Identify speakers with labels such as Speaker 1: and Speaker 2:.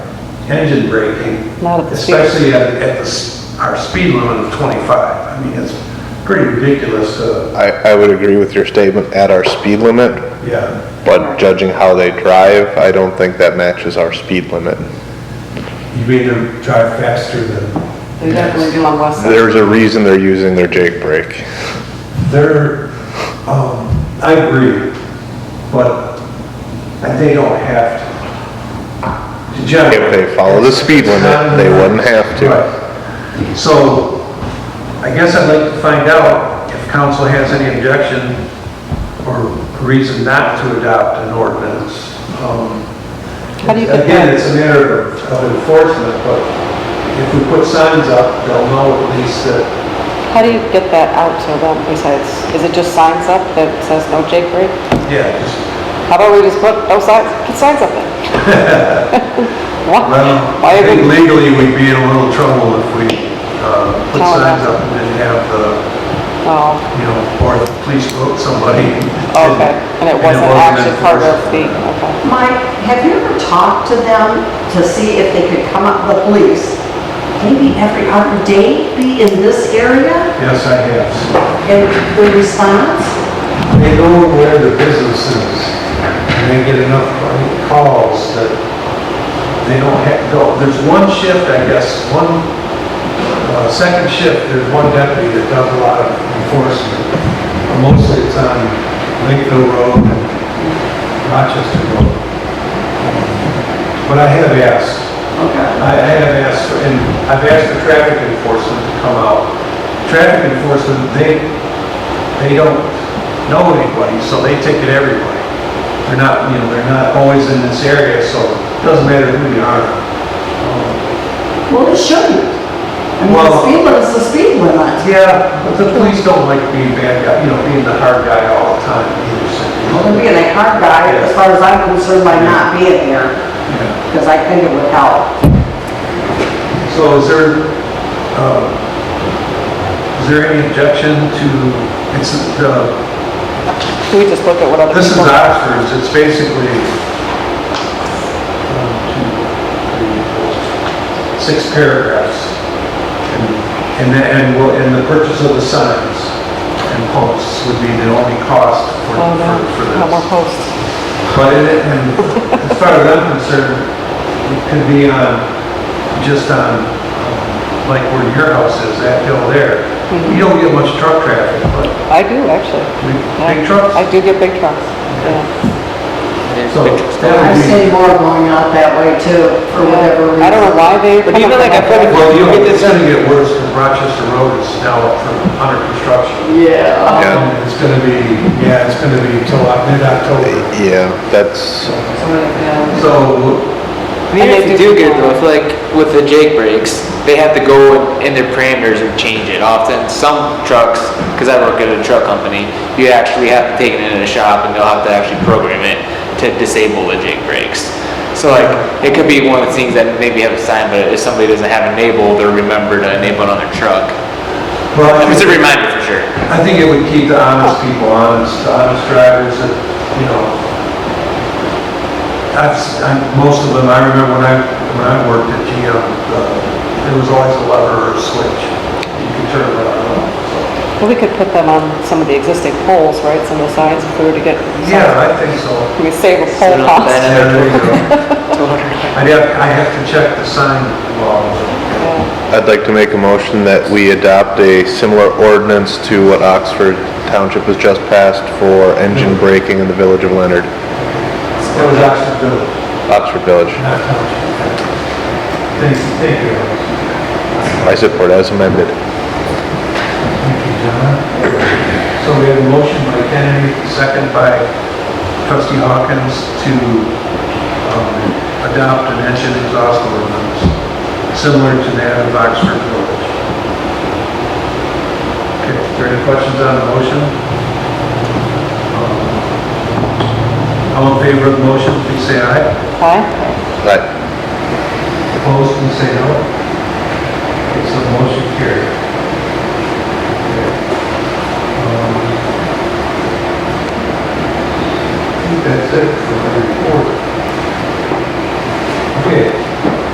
Speaker 1: engine braking,
Speaker 2: Not at the speed.
Speaker 1: especially at, at the, s- our speed limit of 25. I mean, it's pretty ridiculous, uh,
Speaker 3: I, I would agree with your statement at our speed limit,
Speaker 1: yeah.
Speaker 3: but judging how they drive, I don't think that matches our speed limit.
Speaker 1: You made them drive faster than,
Speaker 2: They definitely do on West Side.
Speaker 3: There's a reason they're using their Jake brake.
Speaker 1: they're, um, I agree, but they don't have to. To generate-
Speaker 3: If they follow the speed limit, they wouldn't have to.
Speaker 1: Right. So I guess I'd like to find out if council has any objection or reason not to adopt an ordinance. Um,
Speaker 2: How do you get
Speaker 1: Again,
Speaker 2: that?
Speaker 1: it's a matter of of enforcement, but if we put signs up, they'll know at least that,
Speaker 2: How do you get that out to them besides, is it just signs up that says no Jake Brake?
Speaker 1: yeah, just,
Speaker 2: How about we just put no signs, put signs up there? Why-
Speaker 1: well,
Speaker 2: Why
Speaker 1: I
Speaker 2: are
Speaker 1: think
Speaker 2: we,
Speaker 1: legally we'd be in a little trouble if we uh, put
Speaker 2: Tell them.
Speaker 1: signs up and didn't have the
Speaker 2: oh,
Speaker 1: you know, or the police vote somebody.
Speaker 2: okay, and it wasn't actually part of the, okay.
Speaker 4: Mike, have you ever talked to them to see if they could come up, the police? Maybe every other day be in this area
Speaker 1: Yes, I have.
Speaker 4: and the response?
Speaker 1: They go where the business is, and they get enough calls that they don't have, go. There's one shift, I guess, one, uh, second shift, there's one deputy that does a lot of enforcement. Mostly it's on Lakeville Road and Rochester Road. But I have asked,
Speaker 4: Okay.
Speaker 1: I I have asked, for- and I've asked the traffic enforcement to come out. Traffic enforcement, they, they don't know anybody, so they ticket everybody. They're not, you know, they're not always in this area, so it doesn't matter who you are. Um,
Speaker 4: Well, it shouldn't. I mean, the
Speaker 1: Well-
Speaker 4: speed limit's the speed limit.
Speaker 1: Yeah, but the police don't like being bad guy, you know, being the hard guy all the time either, so.
Speaker 4: Well, being a car guy, as far as I'm concerned, by not being here,
Speaker 1: Yeah.
Speaker 4: because I think it would help.
Speaker 1: So is there, um, is there any objection to, it's, uh,
Speaker 2: Can we just look at what other
Speaker 1: This is
Speaker 2: people?
Speaker 1: Oxford's, it's basically one, two, three, four, six paragraphs. And- And then, and will, and the purchase of the signs and posts would be the only cost for,
Speaker 2: Oh, no,
Speaker 1: for- for
Speaker 2: no more
Speaker 1: this.
Speaker 2: posts.
Speaker 1: But it, and as far as I'm concerned, it could be on, just on, um, like where your house is, that hill there. You
Speaker 2: Hmm.
Speaker 1: don't get much truck traffic, but
Speaker 2: I do, actually.
Speaker 1: big
Speaker 2: Yeah.
Speaker 1: big trucks.
Speaker 2: I do get big trucks, yeah.
Speaker 1: So that would
Speaker 4: I've
Speaker 1: be-
Speaker 4: seen more going out that way too, for whatever reason.
Speaker 2: I don't know why they.
Speaker 5: But even like I put a-
Speaker 1: Well, you know, it's gonna get worse, because Rochester Road is now up for, under construction.
Speaker 4: Yeah.
Speaker 3: Yeah,
Speaker 1: And It's gonna be, yeah, it's gonna be till uh, mid-October.
Speaker 3: yeah, that's,
Speaker 1: So,
Speaker 5: Even
Speaker 2: And
Speaker 5: if
Speaker 2: they
Speaker 5: you
Speaker 2: do
Speaker 5: do get
Speaker 2: do
Speaker 5: though, I feel like with the Jake brakes, they have to go in their parameters and change it. Often some trucks, because I work at a truck company, you actually have to take it into a shop and they'll have to actually program it to disable the Jake brakes. So like, it could be one of the things that maybe have a sign, but if somebody doesn't have enable, they'll remember to enable it uh, on their truck.
Speaker 1: well, I
Speaker 5: It's a
Speaker 1: think-
Speaker 5: reminder for sure.
Speaker 1: I think it would keep the honest people honest, the honest drivers that, you know, I've, s- I, most of them, I remember when I, when I worked at GM, uh, there was always a lever or a switch. You could turn it on and off.
Speaker 2: Well, we could put them on some of the existing poles, right, some of the signs, if we were to get.
Speaker 1: Yeah, I think so.
Speaker 2: Can we save a pole
Speaker 5: Sit on
Speaker 2: cost?
Speaker 5: that.
Speaker 1: Yeah, there you go.
Speaker 5: Totally.
Speaker 1: I'd have, I have to check the sign law.
Speaker 2: Yeah.
Speaker 3: I'd like to make a motion that we adopt a similar ordinance to what Oxford Township has just passed for engine braking in the village of
Speaker 1: It
Speaker 3: Leonard,
Speaker 1: was Oxford Village.
Speaker 3: Oxford Village.
Speaker 1: Not township. Thank you, thank you.
Speaker 3: I support as amended.
Speaker 1: Thank you, John. So we have a motion by Kennedy, second by trustee Hawkins to um, adopt an engine exhaust ordinance similar to that of Oxford Village. Okay, are there any questions on the motion? Um, All in favor of the motion, please say aye.
Speaker 2: Aye.
Speaker 3: Aye.
Speaker 1: Opposed, please say no. Okay, so the motion carried. Um, I think that's it for my report. Okay,